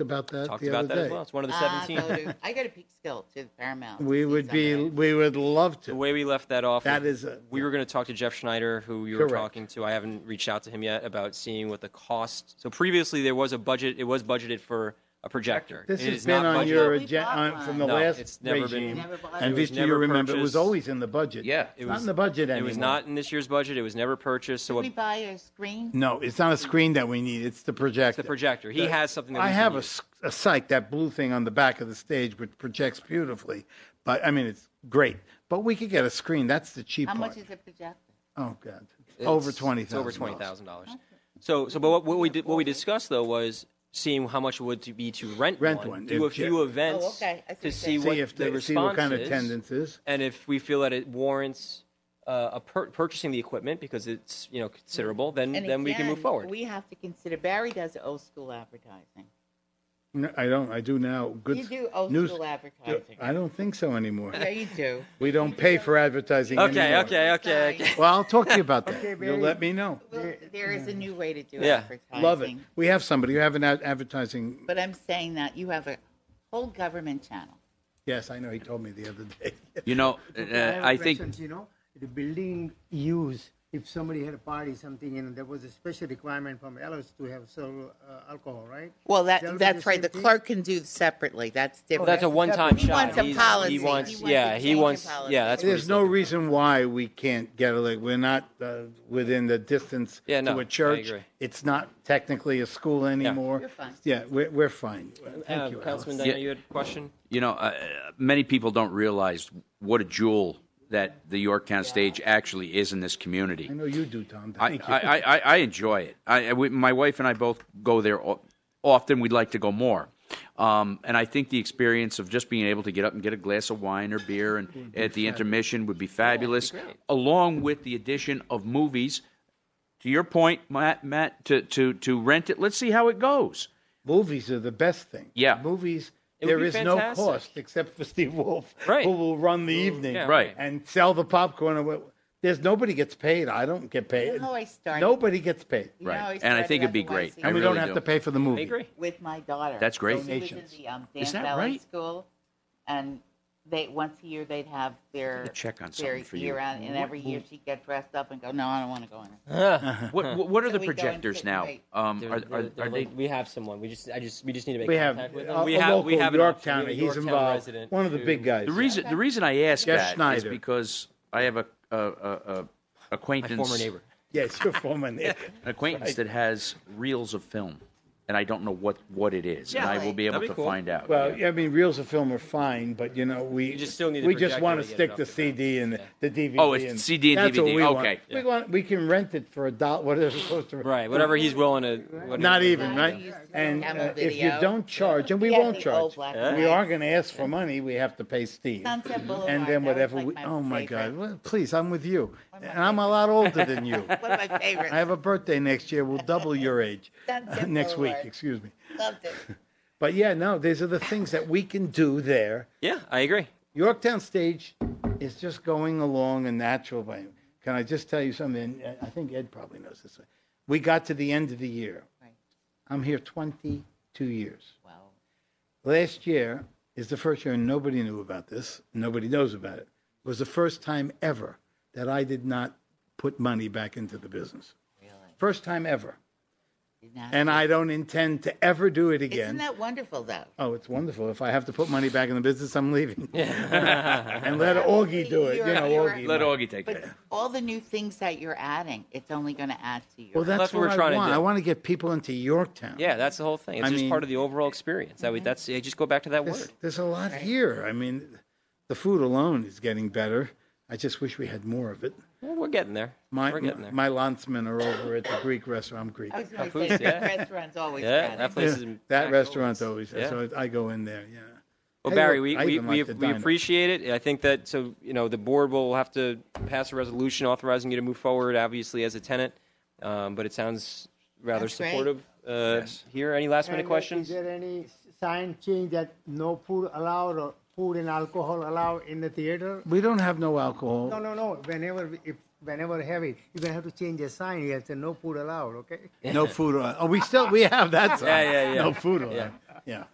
about that Talked the about other that as well. day. It's one of the Ah, 17. go to- I go to Peekskill to Paramount. to We see would be, somebody. we would love The to. way we left that off, That is was a- we were going to talk to Jeff Schneider, who you were Correct. talking to. I haven't reached out to him yet about seeing what the cost. So previously there was a budget. It was budgeted for a projector. This It has is been not on budgeted. your We bought agenda, from the one. No, last it's never been- regime. Never bought And one. Vista, It was you never remember, it was purchased. always in the budget. Yeah. It It's not was- in the budget It anymore. was not in this year's budget. It was never purchased. So Did what- we buy a screen? No, it's not a screen that we need, it's the projector. the projector. He has something. That I we have can a, use. s- a psych, that blue thing on the back of the stage, which projects beautifully. But I mean, it's great. But we could get a screen. That's the cheap How part. much is a projector? oh God, over twenty It's thousand. over twenty thousand dollars. So, so, but what, what we did, what we discussed though was seeing how much it would to be to rent, Rent one, one, do a if- yeah. few events Oh, okay. I see what to you're see saying. See what if the they response see what kind of is, attendance is. and if we feel that it warrants uh, a pur- purchasing the equipment because it's you know considerable, then And then we can move again, forward. We have to consider, Barry does old school advertising. No, I don't. I do now. Good. You do old news- school advertising. I don't think so anymore. Yeah, you do. We don't pay for advertising okay, anymore. okay, okay, Sorry. okay. Well, I'll talk to you about that. You'll Barry. let me know. Well, There is a new way to do Yeah. advertising. Love it. We have somebody. You have an ad- advertising. But I'm saying that you have a whole government channel. Yes, I know. He told me the other day. You know, uh, have a I think preference, You know, the building use, if somebody had a party, something, and there was a special requirement from Ellis to have serve uh, alcohol, right? Well, that, That'll be that's the right. same The thing? clerk can do separately. That's different. That's a one-time He shot. wants a He's- policy. He wants, He wants yeah, a he change in wants, policy. yeah. That's what There's he's no looking for. reason why we can't get it. Like we're not uh, within the distance Yeah, no, to I a church. agree. It's not technically a school anymore. You're fine. Yeah, we're, we're fine. Thank Uh, you, Alex. Councilman Dino, you had a question. you know, uh, many people don't realize what a jewel that the Yorktown stage actually is in this community. I know you do, Tom. I, Thank you. I, I, I enjoy it. I, I- we, my wife and I both go there o- often. We'd like to go more. Um, and I think the experience of just being able to get up and get a glass of wine or beer and at the intermission would be fabulous, great. along with the addition of movies. To your point, Matt, Matt to, to, to rent it, let's see how it goes. Movies are the best thing. Yeah. Movies. It would there be is no fantastic. cost except for Steve Wolf, Right. who will run the evening, yeah, right. and sell the popcorn. and what- There's nobody gets paid. I don't get paid. You know how I started? Nobody gets paid, You know Right. how And I started think it'd be at the YC? great. and we really don't have do. to pay for the I movie. agree. with my daughter. That's great. So she was in Donations. the um, Is dance that ballet right? school, and they once a year they'd have their check on their something for you. year out, and every year she'd get dressed up and go, "No, I don't want to go in." it." What, what- what are So the we go and projectors sit now? right- Um, They're- are, they're- are, they're are they? like- we have someone. We just, I just, we just need to make We have contact with a, them. we a have, we local have an option. Yorktowner. We have a He's Yorktown involved. resident One of the who- big guys. The reason the reason I Yes, ask that is Schneider. because I have a, a, a, a acquaintance, former neighbor. Yes, your former neighbor. an acquaintance that has reels of film, and I don't know what what it is, and I will be able That'd be to cool. find out. Well, yeah. I mean, reels of film are fine, but you know, we just still need a we just projector want to to get it stick up the to CD and the DVD. Oh, it's and CD and that's what DVD. we want. Okay. We want we can rent it for a dollar. What is it supposed to? Right, whatever he's willing to. Whatever. Not even right. Yeah. And Camel uh, if you video. don't charge, and we We had won't the old charge, black and we white. are going to ask for money. We have to pay Steve. Sunset Boulevard, And that then was whatever like we. my Oh my God! favorite. Well, please, I'm with you, One of my and I'm a lot older than you. One of my favorites. I have a birthday next year. We'll double your age Sunset next week. Boulevard. Excuse me. Loved it. But yeah, no, these are the things that we can do there. Yeah, I agree. Yorktown Stage is just going along a natural way. Can I just tell you something? And I think Ed probably knows this. We got to the end of the year. Right. I'm here 22 years. Well, Last year is the first year, and nobody knew about this. Nobody knows about it. It was the first time ever that I did not put money back into the business. really, First time ever. did not- And I don't intend to ever do it again. Isn't that wonderful though? Oh, it's wonderful. If I have to put money back in the business, I'm leaving. and let Augie do it. You know, You're- Augie. Let Augie take But that. all the new things that you're adding, it's only going to add to your. Well, that's, That's what, what we're I trying to want. do. I want to get people into Yorktown. Yeah, that's the whole thing. It's I just mean- part of the overall experience. Mm-hmm. That we, that's yeah, just go back to that There's, word. there's a lot here. I mean, the food alone is getting better. I just wish we had more of it. Well, Eh, we're getting there. My, we're getting there. my lancemen are over at the Greek restaurant. I'm Greek. I was going to Papoose, say, the yeah. restaurants always. Yeah, adding. that place- Yeah, is in- that packed restaurant's always, always. Yeah. so I go in there, yeah. Well, Hey, Barry, look, we, I we, even we, like the we diner. appreciate it. I think that, so, you know, the board will have to pass a resolution authorizing you to move forward, obviously, as a tenant. Um, but it sounds rather That's great. supportive. Uh, Here, any last minute And, uh, questions? Is there any s- sign change that no food allowed or food and alcohol allowed in the theater? We don't have no alcohol. No, no, no. Whenever we- if whenever have it, you're gonna have to change the sign. You have to say no food allowed. Okay. No food. Allowed. Oh, we still we have that. Sign. Yeah, yeah, yeah. No food. Allowed. yeah.